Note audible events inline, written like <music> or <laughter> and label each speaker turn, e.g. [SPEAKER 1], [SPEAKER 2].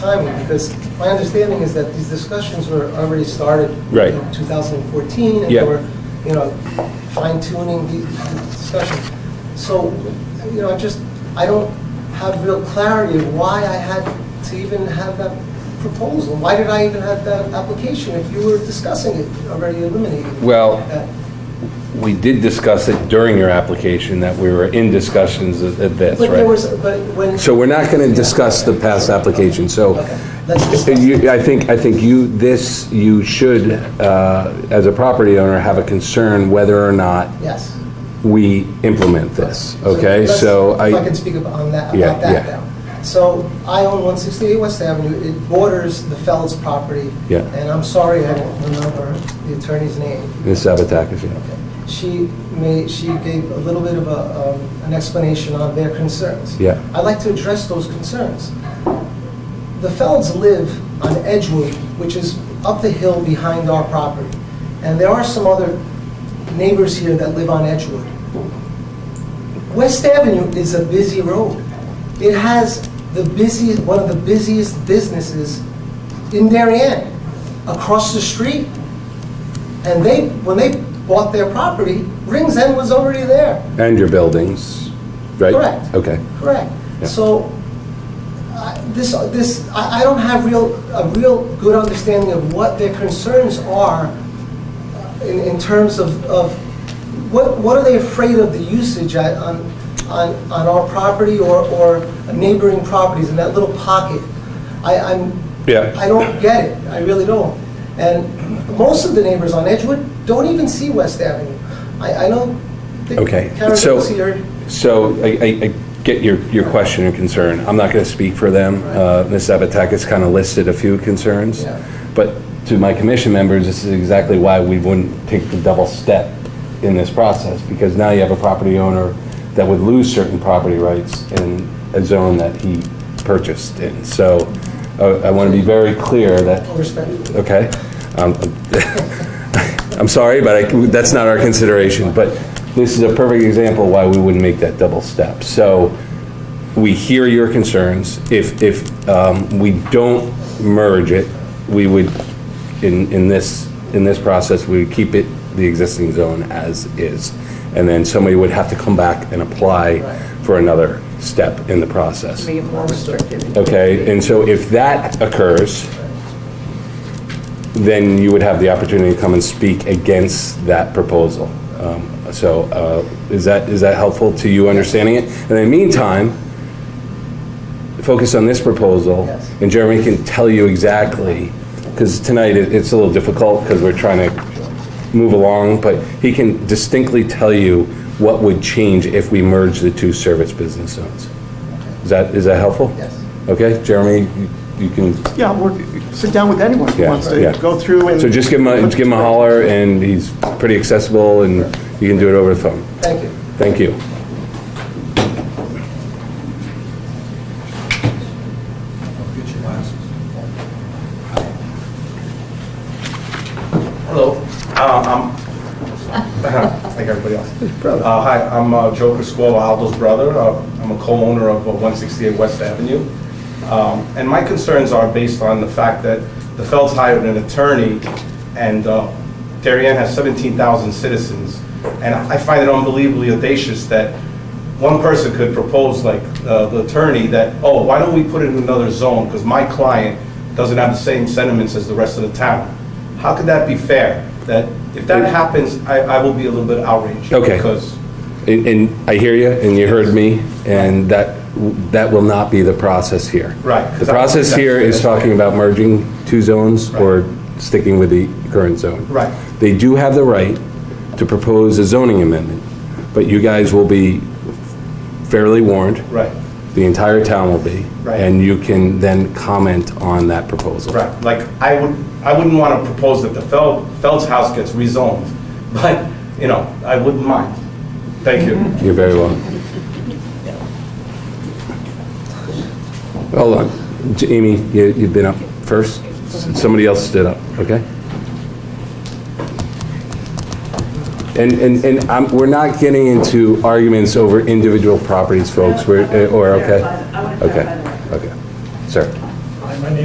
[SPEAKER 1] timely, because my understanding is that these discussions were already started
[SPEAKER 2] Right.
[SPEAKER 1] in 2014, and
[SPEAKER 2] Yeah.
[SPEAKER 1] they were, you know, fine tuning the the discussion. So, you know, I just, I don't have real clarity of why I had to even have that proposal. Why did I even have that application if you were discussing it, already eliminating?
[SPEAKER 2] Well,
[SPEAKER 1] that?
[SPEAKER 2] We did discuss it during your application, that we were in discussions of of this,
[SPEAKER 1] But there
[SPEAKER 2] right?
[SPEAKER 1] was, but when.
[SPEAKER 2] So we're not going to discuss the past application, so
[SPEAKER 1] Okay, let's discuss.
[SPEAKER 2] you- I think, I think you, this, you should, uh, as a property owner, have a concern whether or not
[SPEAKER 1] Yes.
[SPEAKER 2] we implement this, okay?
[SPEAKER 1] let's-
[SPEAKER 2] So I...
[SPEAKER 1] If I can speak up on that,
[SPEAKER 2] Yeah,
[SPEAKER 1] about that
[SPEAKER 2] yeah.
[SPEAKER 1] now. So I own 168 West Avenue, it borders the Fells property.
[SPEAKER 2] Yeah.
[SPEAKER 1] And I'm sorry, I don't remember the attorney's name.
[SPEAKER 2] Ms. Sabatakis, yeah.
[SPEAKER 1] She made, she gave a little bit of a, um, an explanation on their concerns.
[SPEAKER 2] Yeah.
[SPEAKER 1] I'd like to address those concerns. The Felds live on Edgewood, which is up the hill behind our property. And there are some other neighbors here that live on Edgewood. West Avenue is a busy road. It has the busiest, one of the busiest businesses in Darien, across the street. And they, when they bought their property, Rings End was already there.
[SPEAKER 2] And your buildings, right?
[SPEAKER 1] Correct.
[SPEAKER 2] Okay.
[SPEAKER 1] Correct.
[SPEAKER 2] Yeah.
[SPEAKER 1] So, I- this, this, I I don't have real, a real good understanding of what their concerns are uh, in, in terms of, of, what, what are they afraid of the usage at- on, on, on our property or, or neighboring properties in that little pocket? I, I'm.
[SPEAKER 2] Yeah.
[SPEAKER 1] I don't get it, I really don't. And most of the neighbors on Edgewood don't even see West Avenue. I, I don't think.
[SPEAKER 2] Okay,
[SPEAKER 1] Karen
[SPEAKER 2] so-
[SPEAKER 1] doesn't see her.
[SPEAKER 2] So I- I I get your, your question and concern. I'm not going to speak for them. Uh, Ms. Sabatakis kind of listed a few concerns.
[SPEAKER 1] Yeah.
[SPEAKER 2] But to my commission members, this is exactly why we wouldn't take the double step in this process, because now you have a property owner that would lose certain property rights in a zone that he purchased in. So uh, I want to be very clear that
[SPEAKER 1] Respectfully.
[SPEAKER 2] Okay. Um, <laughs> I'm sorry, but I- that's not our consideration, but this is a perfect example why we wouldn't make that double step. So we hear your concerns. If, if um, we don't merge it, we would, in, in this, in this process, we would keep it the existing zone as is. And then somebody would have to come back and apply for another step in the process.
[SPEAKER 3] Make it more restrictive.
[SPEAKER 2] Okay, and so if that occurs, then you would have the opportunity to come and speak against that proposal. Um, So uh, is that, is that helpful to you understanding it? And in the meantime, focus on this proposal.
[SPEAKER 1] Yes.
[SPEAKER 2] And Jeremy can tell you exactly, because tonight it- it's a little difficult because we're trying to move along, but he can distinctly tell you what would change if we merge the two service business zones. Is that, is that helpful?
[SPEAKER 1] Yes.
[SPEAKER 2] Okay, Jeremy, you- you can,
[SPEAKER 4] Yeah, we'll sit down with anyone who
[SPEAKER 2] Yeah,
[SPEAKER 4] wants
[SPEAKER 2] yeah.
[SPEAKER 4] to go through and...
[SPEAKER 2] so just give him, a just give him a holler, and he's pretty accessible, and you can do it over the phone.
[SPEAKER 1] Thank you.
[SPEAKER 2] Thank you.
[SPEAKER 5] Hello, <laughs> uh, I'm, like everybody else. Uh, Hi, I'm uh, Joe Criscola, Aldo's brother. Uh, I'm a co-owner of uh, 168 West Avenue. Um, And my concerns are based on the fact that the Felds hired an attorney, and uh, Darien has 17,000 citizens. And I find it unbelievably audacious that one person could propose, like uh, the attorney, that, oh, why don't we put it in another zone? Because my client doesn't have the same sentiments as the rest of the town. How could that be fair? That if that happens, I, I will be a little bit outraged.
[SPEAKER 2] Okay.
[SPEAKER 5] Because,
[SPEAKER 2] And, and I hear you, and you heard me, and that, that will not be the process here.
[SPEAKER 5] Right.
[SPEAKER 2] The process here is talking about merging two zones or sticking with the current zone.
[SPEAKER 5] Right.
[SPEAKER 2] They do have the right to propose a zoning amendment, but you guys will be fairly warned.
[SPEAKER 5] right,
[SPEAKER 2] The entire town will be.
[SPEAKER 5] Right.
[SPEAKER 2] And you can then comment on that proposal.
[SPEAKER 5] right, like, I would, I wouldn't want to propose that the Fel- Feld's house gets rezoned, <laughs> but, you know, I wouldn't mind. Thank you.
[SPEAKER 2] You're very welcome. Hold on. J- Amy, you- you've been up first. S- Somebody else stood up, okay? And, and, and I'm- we're not getting into arguments over individual properties, folks, we're, eh, or, okay?
[SPEAKER 3] I want to
[SPEAKER 2] Okay.
[SPEAKER 3] clarify that